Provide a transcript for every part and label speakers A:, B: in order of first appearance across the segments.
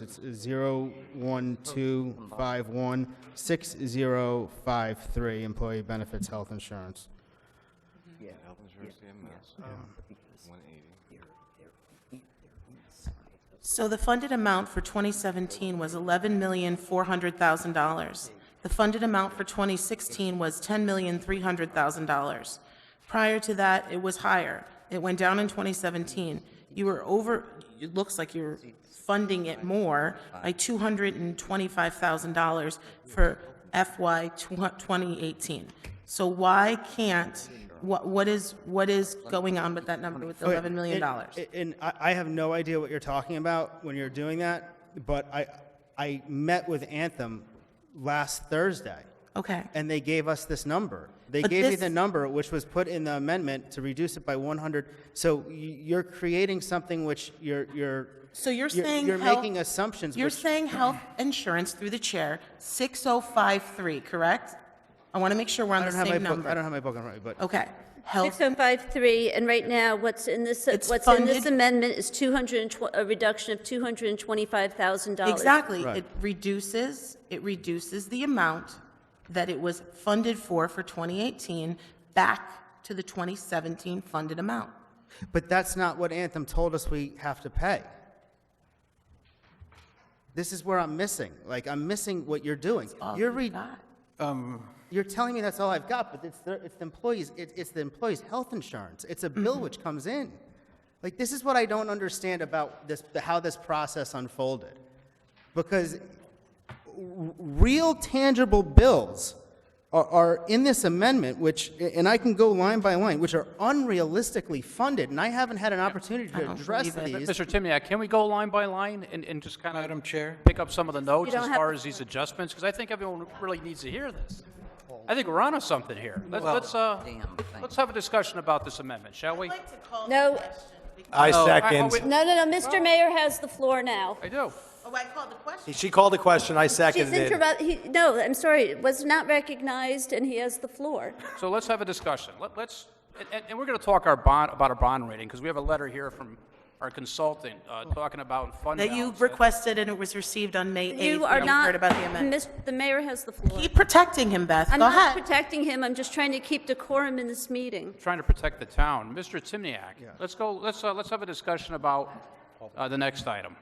A: It's 012516053, Employee Benefits Health Insurance.
B: Yeah.
C: Health insurance, CMS, one eighty.
D: So the funded amount for 2017 was $11,400,000. The funded amount for 2016 was $10,300,000. Prior to that, it was higher. It went down in 2017. You were over, it looks like you're funding it more by $225,000 for FY 2018. So why can't, what, what is, what is going on with that number with the $11 million?
A: And, and I, I have no idea what you're talking about when you're doing that, but I, I met with Anthem last Thursday,
D: Okay.
A: and they gave us this number. They
D: But
A: gave me
D: this-
A: the number, which was put in the amendment to reduce it by 100. So y- you're creating something which you're, you're.
D: So you're
A: you're-
D: saying
A: You're
D: health-
A: making assumptions
D: You're
A: which
D: saying health insurance through the chair, 6053, correct? I want to make sure we're on
A: I
D: the
A: don't have my
D: same
A: book, I don't
D: number.
A: have my book in front of me, but.
D: Okay. Health,
E: 6053, and right now, what's in this,
D: It's
E: what's in this
D: funded-
E: amendment is 200, a reduction of $225,000.
D: exactly.
A: Right.
D: It reduces, it reduces the amount that it was funded for, for 2018, back to the 2017 funded amount.
A: But that's not what Anthem told us we have to pay. This is where I'm missing. Like, I'm missing what you're doing.
D: All
A: You're,
D: we
A: re-
D: got.
A: you're telling me that's all I've got, but it's the, it's the employees, it, it's the employees' health insurance. It's a
D: Mm-hmm.
A: bill which comes in. Like, this is what I don't understand about this, the- how this process unfolded. Because real tangible bills are, are in this amendment, which, and I can go line by line, which are unrealistically funded, and I haven't had an opportunity to
D: don't
A: address
D: believe it.
A: these.
F: Mr. Timniak, uh, can we go line by line and, and just kind
C: Madam
F: of
C: Chair?
F: pick up some of the notes
E: don't
F: as
E: have
F: far
E: to-
F: as these adjustments? Because I think everyone really needs to hear this.
C: Oh.
F: I think we're onto something here. Let's, let's, uh, let's have a discussion about this amendment, shall we?
E: No,
G: I
F: Oh, I- oh,
G: second.
F: wait,
E: no, no, no, Mr. Mayor has the floor now.
F: I do.
D: Oh, I called the question.
G: She called a question, I
E: She's
G: seconded.
E: interrupt, he, no, I'm sorry, it was not recognized, and he has the floor.
F: So let's have a discussion. Let, let's, and- and, and we're going to talk our bond, about our bond rating, because we have a letter here from our consultant, uh, talking about fund
D: That you
F: balance.
D: requested and it was received on May 8th.
E: You are
D: We
E: not,
D: Heard about the amendment.
E: Mis- the mayor has the floor.
D: Keep protecting him, Beth.
E: I'm
D: Go
E: not
D: ahead.
E: protecting him, I'm just trying to keep decorum in this meeting.
F: Trying to protect the town. Mr. Timniak, let's go, let's, uh, let's have a discussion about, uh, the next item.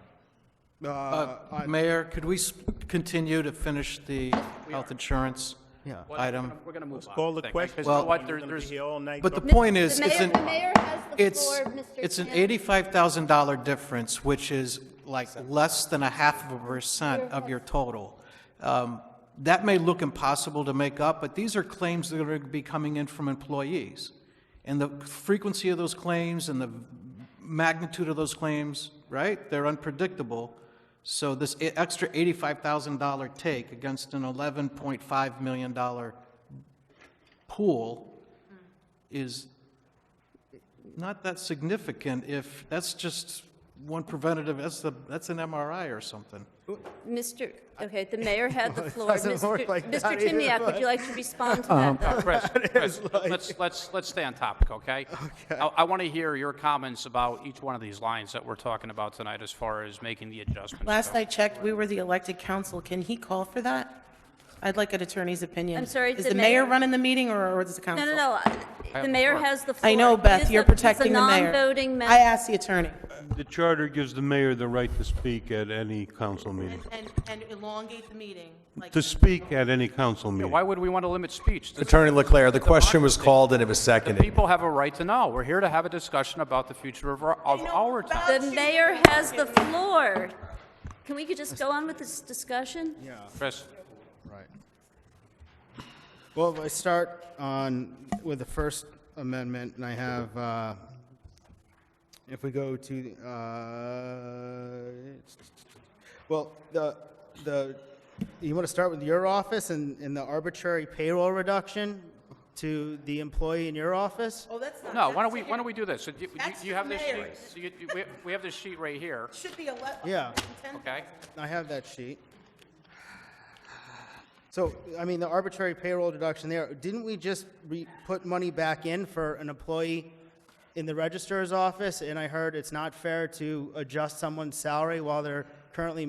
C: Uh, Mayor, could we s- continue to finish the health insurance
A: Yeah.
C: item?
F: We're going to move on.
H: Call
F: I
H: the
F: think,
H: question.
F: Because you know
C: Well-
F: what, there- there's,
C: But the point is,
E: The
C: it's
E: mayor,
C: an,
E: the mayor has the
C: it's,
E: floor, Mr.
C: it's an
E: Chan.
C: eighty-five thousand dollar difference, which is like less than a half of a percent of your total. Um, That may look impossible to make up, but these are claims that are going to be coming in from employees. And the frequency of those claims and the magnitude of those claims, right, they're unpredictable. So this e- extra eighty-five thousand dollar take against an eleven point five million dollar pool
E: Hmm.
C: is not that significant if, that's just one preventative, that's the, that's an MRI or something.
E: Mr., okay, the mayor had the floor.
A: doesn't
E: Mr.
A: work like that
E: Mr.
A: either,
E: Timniak, would you like to respond
C: Um,
E: to that, though?
F: Chris, Chris, let's, let's, let's stay on topic, okay? I, I want to hear your comments about each one of these lines that we're talking about tonight as far as making the adjustments.
D: Last I checked, we were the elected council. Can he call for that? I'd like an attorney's opinion.
E: I'm sorry,
D: Is the mayor running the meeting or is the
E: No,
D: council?
E: no, no, I- the mayor has the floor.
D: I know,
E: It is
D: Beth,
E: a-
D: you're protecting the
E: It's a
D: mayor.
E: non-voting
D: I
E: member.
D: asked the attorney.
H: The charter gives the mayor the right to speak at any council meeting,
D: And, and elongate the meeting, like.
H: to speak at any council meeting.
F: Why would we want to limit speech? The-
G: Attorney Leclerc, the question was called and it was
F: The
G: seconded.
F: people have a right to know. We're here to have a discussion about the future of our, of our town.
E: The mayor has the floor. Can we could just go on with this discussion?
F: Chris,
A: Right. Well, I start on, with the First Amendment, and I have, uh, if we go to, uh, well, the, the, you want to start with your office and, and the arbitrary payroll reduction to the employee in your office?
D: Oh, that's not.
F: no, why don't
D: that's
F: we, why don't we do this? So do you-
D: That's
F: You have this
D: the mayor.
F: sheet, so you- you- we- we have this sheet right
D: here.
F: here,
D: Should be ele-
A: Yeah.
F: okay?
A: I have that sheet. So, I mean, the arbitrary payroll deduction there, didn't we just re- put money back in for an employee in the registrar's office? And I heard it's not fair to adjust someone's salary while they're currently